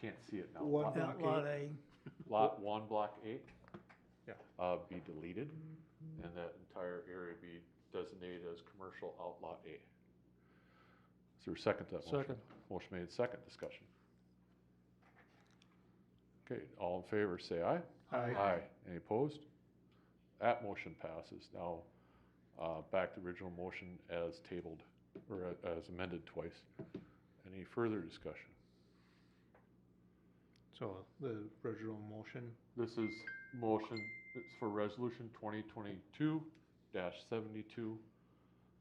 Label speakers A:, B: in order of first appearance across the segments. A: can't see it now.
B: One
A: Lot-
B: block
C: That lot
B: eight.
C: A,
A: Lot one, block eight?
B: Yeah.
A: Uh, be deleted, and that entire area be designated as commercial outlot A. Is there a second to that motion?
B: Second.
A: Motion made, second, discussion. Okay, all in favor, say aye.
B: Aye.
A: Any opposed? That motion passes. Now, uh, back to the original motion as tabled, or a- as amended twice. Any further discussion?
B: So the original motion,
A: This is motion, it's for resolution twenty twenty-two seventy-two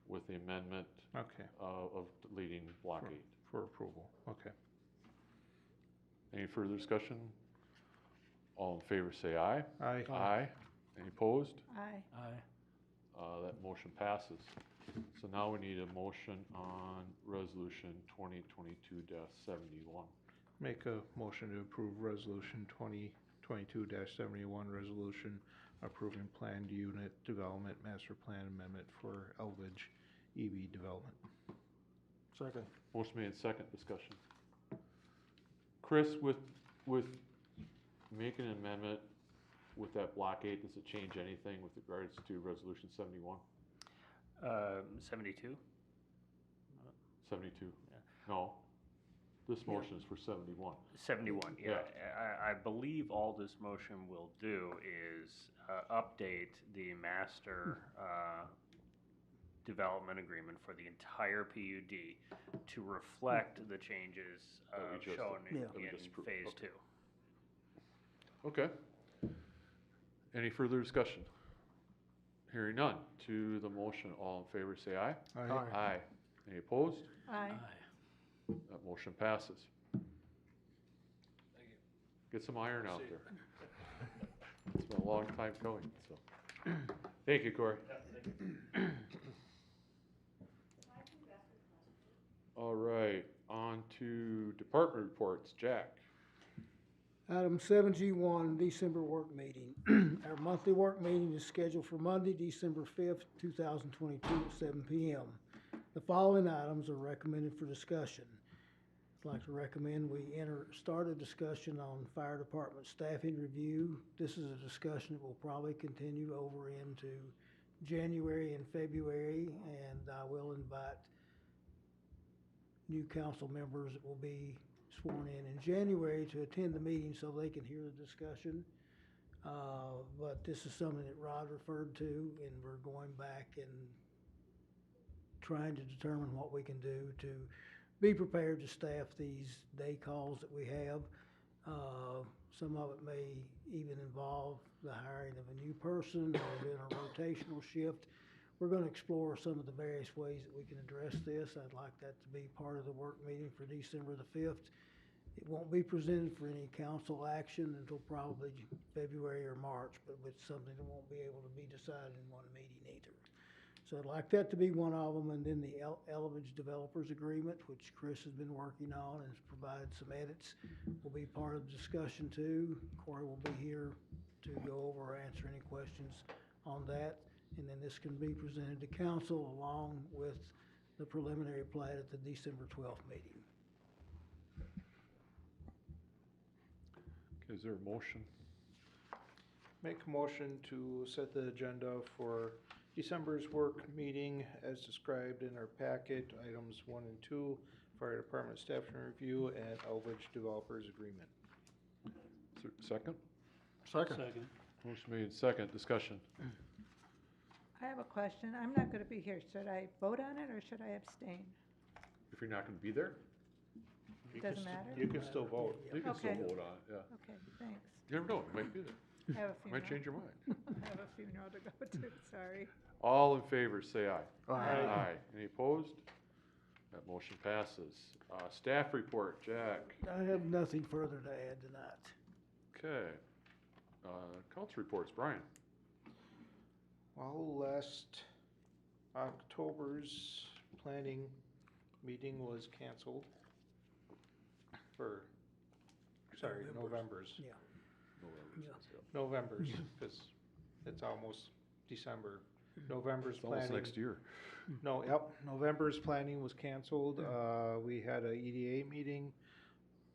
A: with the amendment
B: okay,
A: uh, of deleting block
B: Sure.
A: eight.
B: for approval, okay.
A: Any further discussion? All in favor, say aye.
B: Aye.
A: Any opposed?
D: Aye.
C: aye.
A: Uh, That motion passes. So now we need a motion on resolution twenty twenty-two seventy-one.
B: Make a motion to approve resolution twenty twenty-two seventy-one, resolution approving planned unit development master plan amendment for Elbridge EB development.
C: Second.
A: Motion made, second discussion. Chris, with, with making an amendment with that block eight, does it change anything with regards to resolution seventy-one,
E: Um, seventy-two?
A: seventy-two?
E: Yeah.
A: No, this motion is for seventy-one.
E: Seventy-one, yeah. I, I believe all this motion will do is, uh, update the master, uh, development agreement for the entire PUD to reflect the changes, uh,
A: Hmm. That we just-
E: shown in,
C: Yeah.
A: that we
E: in
A: just approved.
E: phase
A: Okay.
E: two.
A: Okay. Any further discussion? Hearing none. To the motion, all in favor, say aye.
B: Aye.
A: Aye. Any opposed?
D: Aye.
A: That motion passes. Get some iron out there. It's been a long time going, so. Thank you, Corey. All right, on to department reports. Jack?
F: Item seven G one, December work meeting. Our monthly work meeting is scheduled for Monday, December fifth, two thousand twenty-two, at seven P M. The following items are recommended for discussion. I'd like to recommend we enter, start a discussion on fire department staffing review. This is a discussion that will probably continue over into January and February, and I will invite new council members that will be sworn in in January to attend the meeting so they can hear the discussion. Uh, But this is something that Rod referred to, and we're going back and trying to determine what we can do to be prepared to staff these day calls that we have. Uh, Some of it may even involve the hiring of a new person or doing a rotational shift. We're gonna explore some of the various ways that we can address this. I'd like that to be part of the work meeting for December the fifth. It won't be presented for any council action until probably February or March, but it's something that won't be able to be decided in one meeting either. So I'd like that to be one of them, and then the El- Elevage Developers Agreement, which Chris has been working on and has provided some edits, will be part of the discussion too. Corey will be here to go over or answer any questions on that. And then this can be presented to council along with the preliminary plat at the December twelfth meeting.
A: Is there a motion?
B: Make a motion to set the agenda for December's work meeting as described in our packet, items one and two, fire department staffing review and Elbridge developers agreement.
A: Is there a Second?
C: Second.
A: Motion made, second, discussion.
D: I have a question. I'm not going to be here. Should I vote on it or should I abstain?
A: If you're not gonna be there,
B: You can
D: Doesn't
B: st-
D: matter?
B: You can still vote.
A: you can still
D: Okay.
A: vote on it, yeah.
D: Okay, thanks.
A: You never know, it might be there,
D: I have a
A: might
D: funeral.
A: change your mind.
D: I have a funeral to go to, sorry.
A: All in favor, say aye.
D: Aye.
A: Any opposed? That motion passes. Uh, staff report, Jack.
F: I have nothing further to add tonight.
A: Okay. Uh, council reports, Brian.
B: Well, last October's planning meeting was canceled for, sorry, November's,
F: Yeah. Yeah.
B: November's, because it's almost December. November's
A: Hmm. It's almost
B: planning,
A: next year. Hmm.
B: no, yep, November's planning was canceled. Uh, we had a EDA meeting